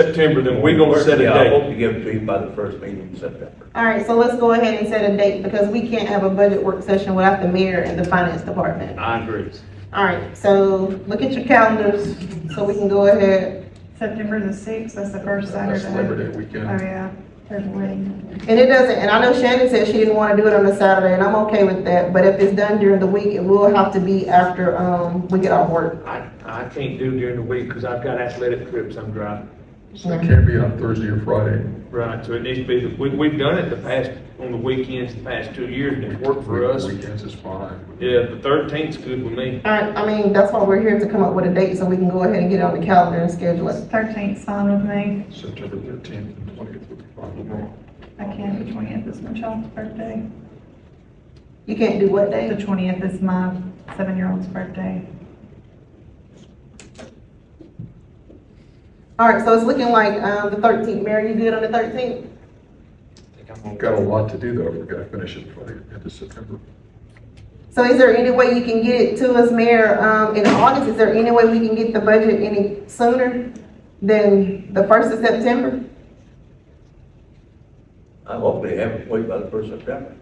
September, then we're gonna set a Yeah, I hope date. to give it to you by the first meeting in September. All right, so let's go ahead and set a date because we can't have a budget work session without the mayor and the finance department. I agree. All right, so look at your calendars so we can go ahead. September the sixth, that's the first Saturday. That's Labor Day Oh, weekend. yeah, there's a wedding. And it doesn't, and I know Shannon said she didn't wanna do it on a Saturday and I'm okay with that, but if it's done during the week, it will have to be after, um, we get off work. I, I can't do during the week because I've got athletic trips I'm driving. So it can't be on Thursday or Friday. Right, so it needs to be, the- we, we've done it the past, on the weekends, the past two years, and it's worked for us. Weekends is fine. Yeah, the thirteenth's good with me. All right, I mean, that's why we're here to come up with a date so we can go ahead and get it on the calendar and schedule it. Thirteenth fine with me. September thirteenth and twentieth would be fine with me. I can't, the twentieth is my child's birthday. You can't do what The day? twentieth is my seven-year-old's birthday. All right, so it's looking like, um, the thirteenth. Mary, you good on the thirteenth? Got a lot to do though, we're gonna finish it by the end of September. So is there any way you can get it to us, Mayor, um, in August? Is there any way we can get the budget any sooner than the first of September? I hope they have it for you by the first September.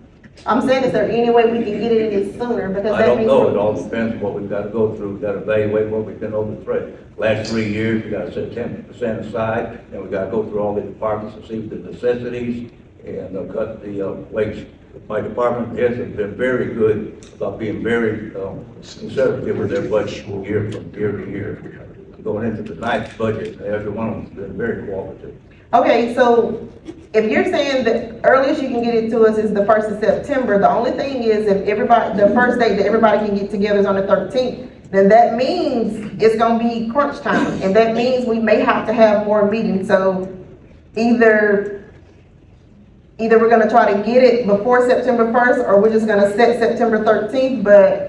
I'm saying, is there any way we can get it any sooner? Because I that don't means know, we're- it all depends on what we've got to go through, we've got to evaluate what we've been over the threat. Last three years, we got to set ten percent aside, and we got to go through all the departments to see the necessities and uh, cut the uh, waste. My department has been very good about being very um, conservative with their budget year from year to year. Going into the ninth budget, every one of them's been very cooperative. Okay, so if you're saying the earliest you can get it to us is the first of September, the only thing is if everybody, the first date that everybody can get together is on the thirteenth, then that means it's gonna be crunch time, and that means we may have to have more meetings, so either, either we're gonna try to get it before September first, or we're just gonna set September thirteenth, but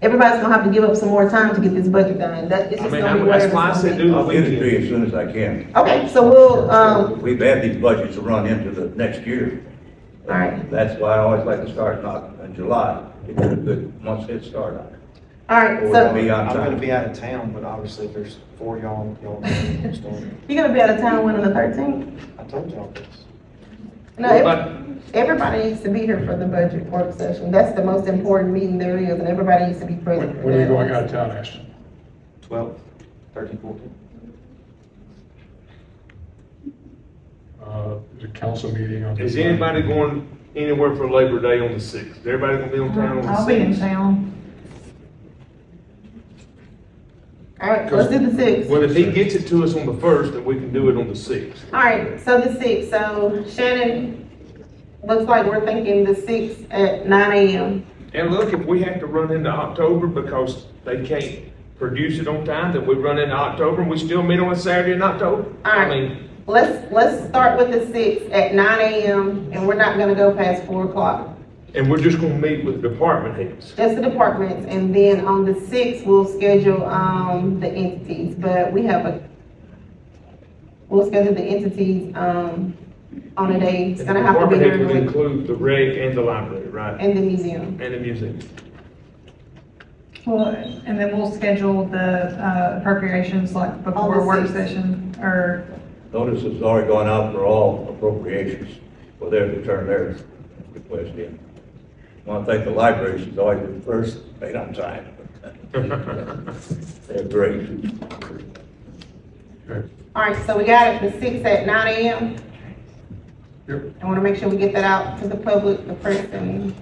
everybody's gonna have to give up some more time to get this budget done, that, it's I just mean, gonna be I'm- whatever that's it's why I gonna said be. do the I'll get it to you weekend. as soon as I can. Okay, so we'll, um, We've had these budgets to run into the next year. All right. That's why I always like to start not in July, to get a good month's head start on it. all right, Or we're so. gonna be on I'm gonna time. be out of town, but obviously if there's four y'all, y'all. it's going- You're gonna be out of town when on the thirteenth? I told y'all this. No, What ev- about- everybody needs to be here for the budget work session. That's the most important meeting there is, and everybody needs to be present. When, for when are you that. going out of town, Ashton? Twelve, thirteen, fourteen. Uh, there's a council meeting on. Is anybody going anywhere for Labor Day on the sixth? Is everybody gonna be on town on the I'll be in sixth? town. All right, let's do the sixth. Well, if he gets it to us on the first, then we can do it on the sixth. All right, so the sixth, so Shannon, looks like we're thinking the sixth at nine AM. And look, if we have to run into October because they can't produce it on time, then we run into October and we still meet on a Saturday in October. I Alright. mean, Let's, let's start with the sixth at nine AM, and we're not gonna go past four o'clock. and we're just gonna meet with department heads. That's the departments, and then on the sixth, we'll schedule, um, the entities, but we have a, we'll schedule the entities, um, on a day, it's gonna have to be Department heads during would the week, include the reg and the library, right? and the museum. And the museum. Well, and then we'll schedule the uh, appropriations like before work 6th. session or, Notice it's already gone out for all appropriations, for them to turn their request in. I want to thank the library, she's always been first, right on time. They're great. Okay. Alright, so we got it, the sixth at nine AM. Yep. I wanna make sure we get that out to the public, the press, and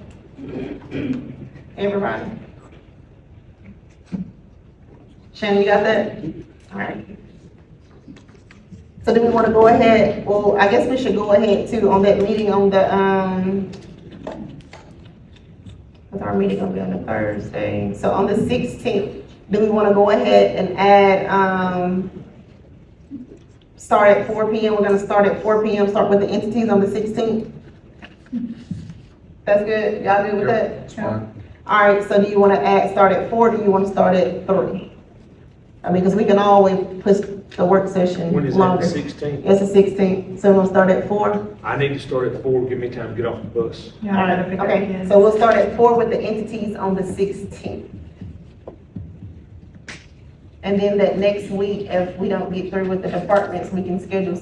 everybody. Shannon, you got that? Alright. So do we wanna go ahead, well, I guess we should go ahead too on that meeting on the, um, cause our meeting gonna be on the Thursday, so on the sixteenth, do we wanna go ahead and add, um, start at four P M, we're gonna start at four P M, start with the entities on the sixteenth? That's good, y'all good with that? It's fine. Alright, so do you wanna add, start at four, do you wanna start at three? I mean, cause we can always push the work session When is that, the longer. sixteenth? It's the sixteenth, so we'll start at four? I need to start at four, give me time to get off the bus. you know, I gotta pick up Okay, kids. so we'll start at four with the entities on the sixteenth. And then that next week, if we don't get through with the departments, we can schedule